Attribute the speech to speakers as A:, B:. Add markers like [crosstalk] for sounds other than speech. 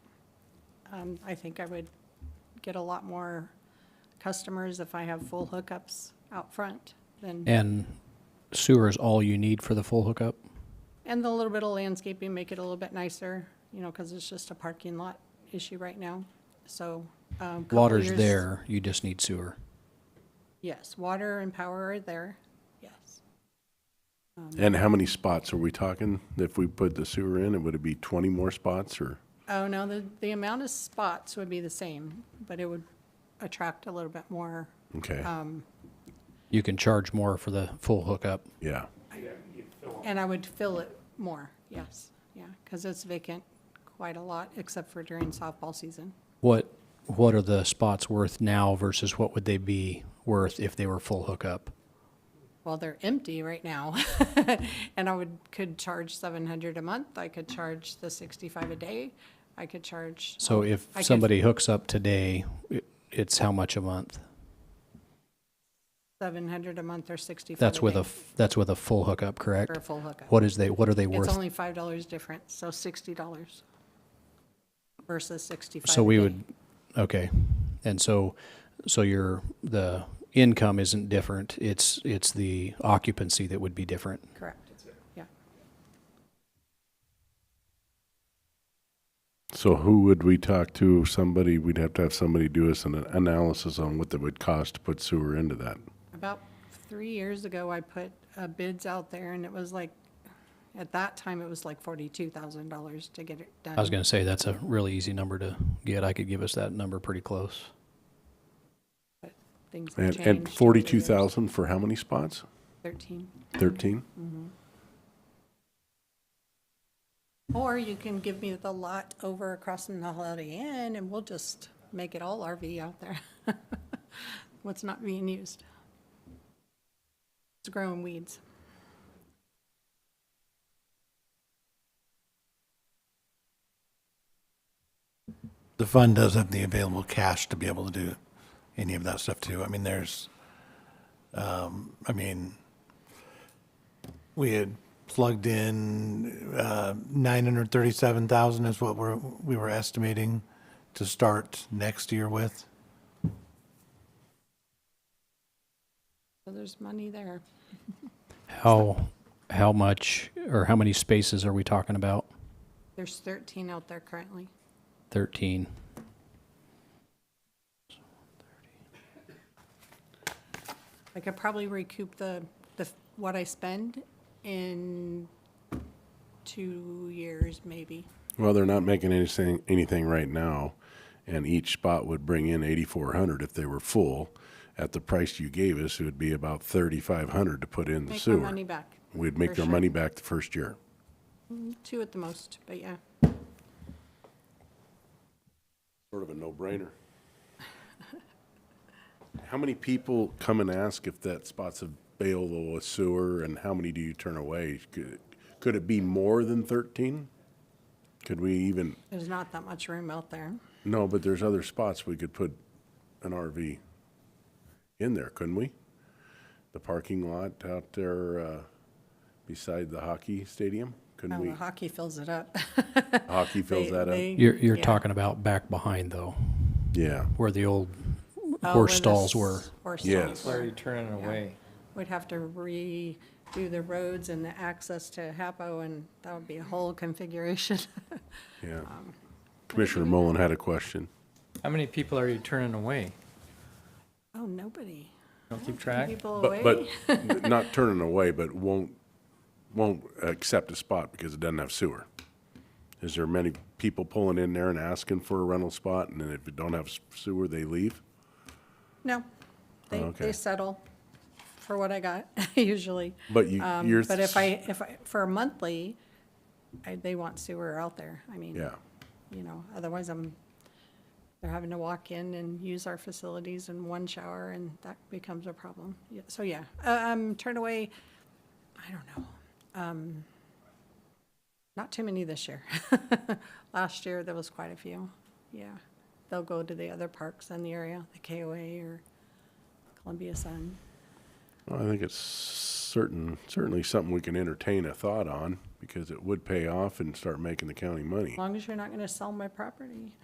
A: Um, I think I would get a lot more customers if I have full hookups out front than,
B: And sewer is all you need for the full hookup?
A: and the little bit of landscaping, make it a little bit nicer, you know, because it's just a parking lot issue right now, so. um, couple
B: Water's
A: years-
B: there, you just need sewer.
A: Yes, water and power are there, yes.
C: And how many spots are we talking? If we put the sewer in, it would it be 20 more spots or?
A: Oh, no, the, the amount of spots would be the same, but it would attract a little bit more.
C: Okay,
A: Um,
B: You can charge more for the full hookup.
C: yeah.
A: And I would fill it more, yes, yeah, because it's vacant quite a lot, except for during softball season.
B: What, what are the spots worth now versus what would they be worth if they were full hookup?
A: Well, they're empty right now. [laughs] And I would, could charge seven hundred a month, I could charge the sixty-five a day, I could charge,
B: So if
A: I could-
B: somebody hooks up today, it- it's how much a month?
A: seven hundred a month or sixty-five a day.
B: That's with a, f- that's with a full hookup, correct?
A: For a full hookup.
B: What is they, what are they
A: It's
B: worth?
A: only five dollars difference, so sixty dollars versus sixty-five
B: So
A: a
B: we
A: day.
B: would, okay. And so, so your, the income isn't different, it's, it's the occupancy that would be different.
A: Correct, yeah.
C: So who would we talk to? Somebody, we'd have to have somebody do us an analysis on what that would cost to put sewer into that.
A: About three years ago, I put uh, bids out there, and it was like, at that time, it was like forty-two thousand dollars to get it done.
B: I was gonna say, that's a really easy number to get. I could give us that number pretty close.
A: but Things have
C: And,
A: changed. over
C: and
A: the
C: 42,000 for how many spots?
A: years. Thirteen.
C: 13?
A: Or you can give me the lot over across from the Holiday Inn, and we'll just make it all RV out there. [laughs] What's not being used. It's growing weeds.
D: the fund does have the available cash to be able to do any of that stuff too. I mean, there's, um, I mean, we had plugged in, uh, nine hundred thirty-seven thousand is what we're, we were estimating to start next year with.
A: So there's money there.
B: How, how much, or how many spaces are we talking about?
A: There's thirteen out there currently.
B: Thirteen.
A: I could probably recoup the, the, what I spend in two years, maybe.
C: Well, they're not making anything, anything right now, and each spot would bring in 8,400 if they were full. At the price you gave us, it would be about 3,500 to put in the
A: Make my
C: sewer.
A: money back.
C: We'd make
A: for
C: their
A: sure.
C: money back the first year.
A: Two at the most, but yeah.
C: Sort of a no-brainer. [laughs] How many people come and ask if that spot's available with sewer, and how many do you turn away? Could could it be more than 13? Could we even,
A: There's not that much room out there.
C: no, but there's other spots we could put an RV in there, couldn't we? The parking lot out there uh, beside the hockey stadium, couldn't
A: Well,
C: we?
A: Oh, the hockey fills it up.
C: Hockey
A: [laughs]
C: fills
A: They-
C: that up?
A: they-
B: You're, you're
A: yeah.
B: talking about back behind though,
C: Yeah.
B: where the old
A: Oh,
B: horse
A: where the
B: stalls
A: s-
B: were.
A: Horse
C: Yes.
A: stalls
E: Why are you
A: were.
E: turning away?
A: We'd have to redo the roads and the access to Hapo, and that would be a whole configuration. [laughs]
C: Yeah.
A: um,
C: Commissioner Mullen had a question.
E: How many people are you turning away?
A: Oh, nobody.
E: Don't keep track?
A: People away.
C: But,
A: [laughs]
C: but not turning away, but won't, won't accept a spot because it doesn't have sewer. Is there many people pulling in there and asking for a rental spot, and then if it don't have s- sewer, they leave?
A: No, they, they
C: Oh, Okay.
A: settle for what I got [laughs] usually.
C: But you,
A: Um,
C: you're.
A: But if I, if I, for a monthly, I, they want sewer out there. I mean,
C: Yeah,
A: you know, otherwise I'm, they're having to walk in and use our facilities in one shower and that becomes a problem. Yeah, So, yeah, Uh, um, turn away, I don't know. Um, Not too many this year. [laughs] Last year, there was quite a few, yeah. They'll go to the other parks in the area, the KOA or Columbia Sun.
C: well, I think it's certain, certainly something we can entertain a thought on, because it would pay off and start making the county money.
A: As long as you're not gonna sell my property.